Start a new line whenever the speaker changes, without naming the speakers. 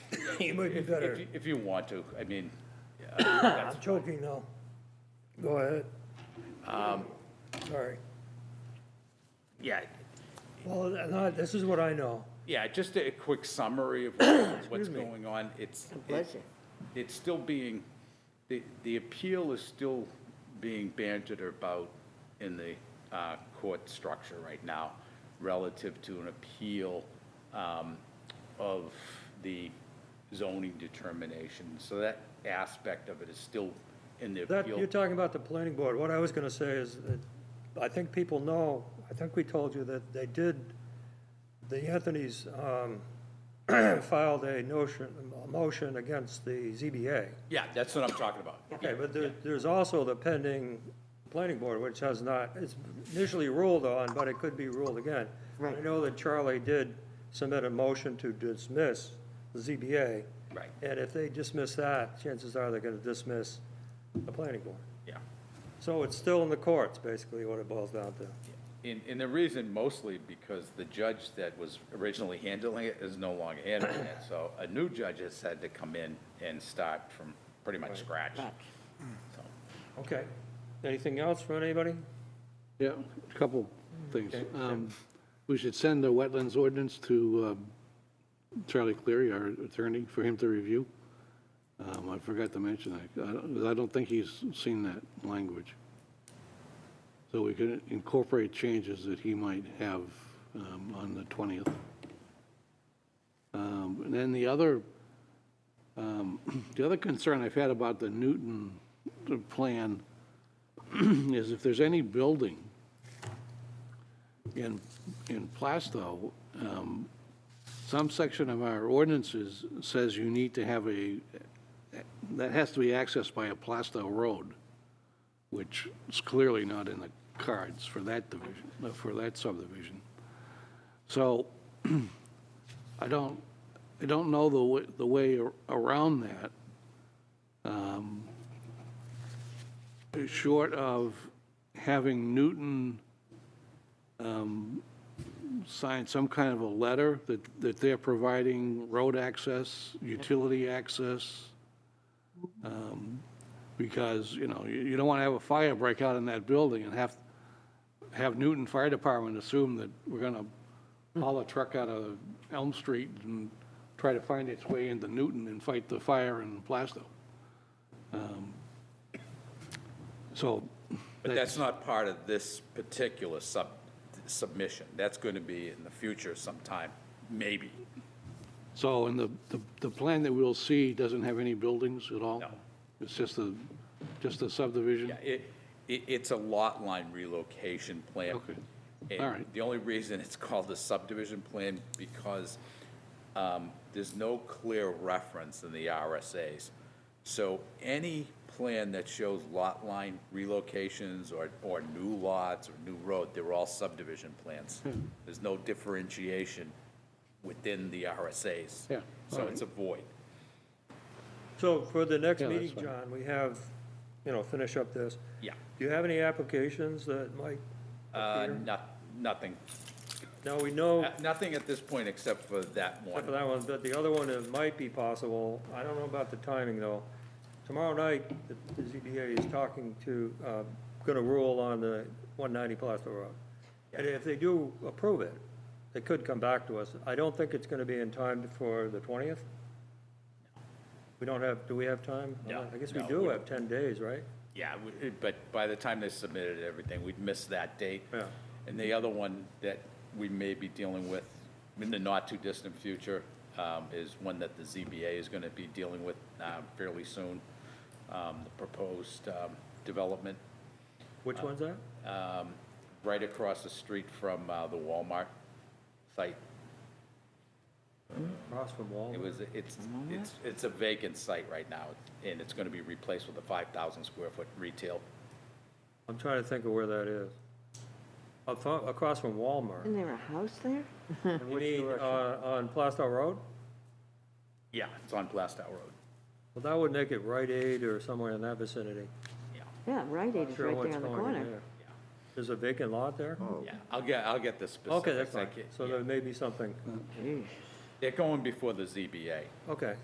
It might be
If-
better.
if you- If you want to, I mean,
I'm choking now. Go ahead. Sorry.
yeah,
Well, uh, no, this is what I know.
yeah, just a quick summary of what- what's
Excuse me.
going on. It's. it-
pleasure.
It's still being, the, the appeal is still being bantered about in the uh, court structure right now relative to an appeal um, of the zoning determination. So that aspect of it is still in the
That,
appeal.
you're talking about the planning board. What I was gonna say is that I think people know, I think we told you that they did, the Anthony's, um, filed a notion, a motion against the ZBA.
Yeah, that's what I'm talking about.
Okay, but there, there's also the pending planning board, which has not, it's initially ruled on, but it could be ruled again. I
Right.
know that Charlie did submit a motion to dismiss the ZBA.
Right.
And if they dismiss that, chances are they're gonna dismiss the planning board.
Yeah.
So it's still in the courts, basically, what it boils down to.
And, and the reason mostly because the judge that was originally handling it is no longer handling it. So a new judge has had to come in and start from pretty much scratch.
Right.
So,
Okay. Anything else from anybody?
Yeah, a couple things. Um, We should send the wetlands ordinance to um, Charlie Cleary, our attorney, for him to review. Um, I forgot to mention that. I don't- I don't think he's seen that language. So we could incorporate changes that he might have um, on the 20th. Um, And then the other, um, the other concern I've had about the Newton uh, plan is if there's any building in, in Plastow, um, some section of our ordinances says you need to have a, that has to be accessed by a Plastow road, which is clearly not in the cards for that division, uh, for that subdivision. So I don't, I don't know the, wa- the way ar- around that. short of having Newton um, sign some kind of a letter that, that they're providing road access, utility access, um, because, you know, you, you don't want to have a fire break out in that building and have, have Newton Fire Department assume that we're going to haul a truck out of Elm Street and try to find its way into Newton and fight the fire in Plastow. So
But that's not part of this particular sub, submission. That's going to be in the future sometime, maybe.
So, and the, the, the plan that we'll see doesn't have any buildings at all?
No.
It's just a, just a subdivision?
Yeah, it, it, it's a lot line relocation plan.
Okay.
And
All right.
The only reason it's called a subdivision plan, because um, there's no clear reference in the RSAs. So any plan that shows lot line relocations or, or new lots or new road, they're all subdivision plans.
Hmm.
There's no differentiation within the RSAs.
Yeah, all
So
right.
it's a void.
So for the next
Yeah, that's
meeting,
fine.
John, we have, you know, finish up this.
Yeah.
Do you have any applications that might
Uh,
appear?
not, nothing,
Now, we
Oh.
know.
Uh, nothing at this point except for that one.
Except for that one, but the other one, it might be possible, I don't know about the timing, though. Tomorrow night, the the ZBA is talking to, uh, gonna rule on the 190 Plaster Road. And if they do approve it, they could come back to us. I don't think it's gonna be in time for the 20th? We don't have, do we have time?
No,
I guess we
no,
do
we-
have 10 days, right?
Yeah, we- it- but by the time they submitted everything, we'd missed that date.
Yeah.
And the other one that we may be dealing with in the not-too-distant future um, is one that the ZBA is going to be dealing with uh, fairly soon, um, the proposed um, development
Which
Uh,
one's that?
um, right across the street from uh, the Walmart site.
Across from
It
Walmart?
was, it's, it's, it's a vacant site right now, and it's going to be replaced with a 5,000-square-foot retail.
I'm trying to think of where that is. Up fro- Across from Walmart.
Isn't there a house there?
You mean, uh, on Plaster Road?
Yeah. It's on Blastow Road.
Well, that would make it Rite Aid or somewhere in that vicinity.
Yeah.
Yeah, Rite Aid is
Sure
right
what's
there on the
going on
corner.
there. There's a vacant lot there?
Yeah, I'll get, I'll get the specifics.
Okay, that's
I
fine.
can't-
So
yeah.
there may be something.
Jeez.
They're going before the ZBA.
Okay.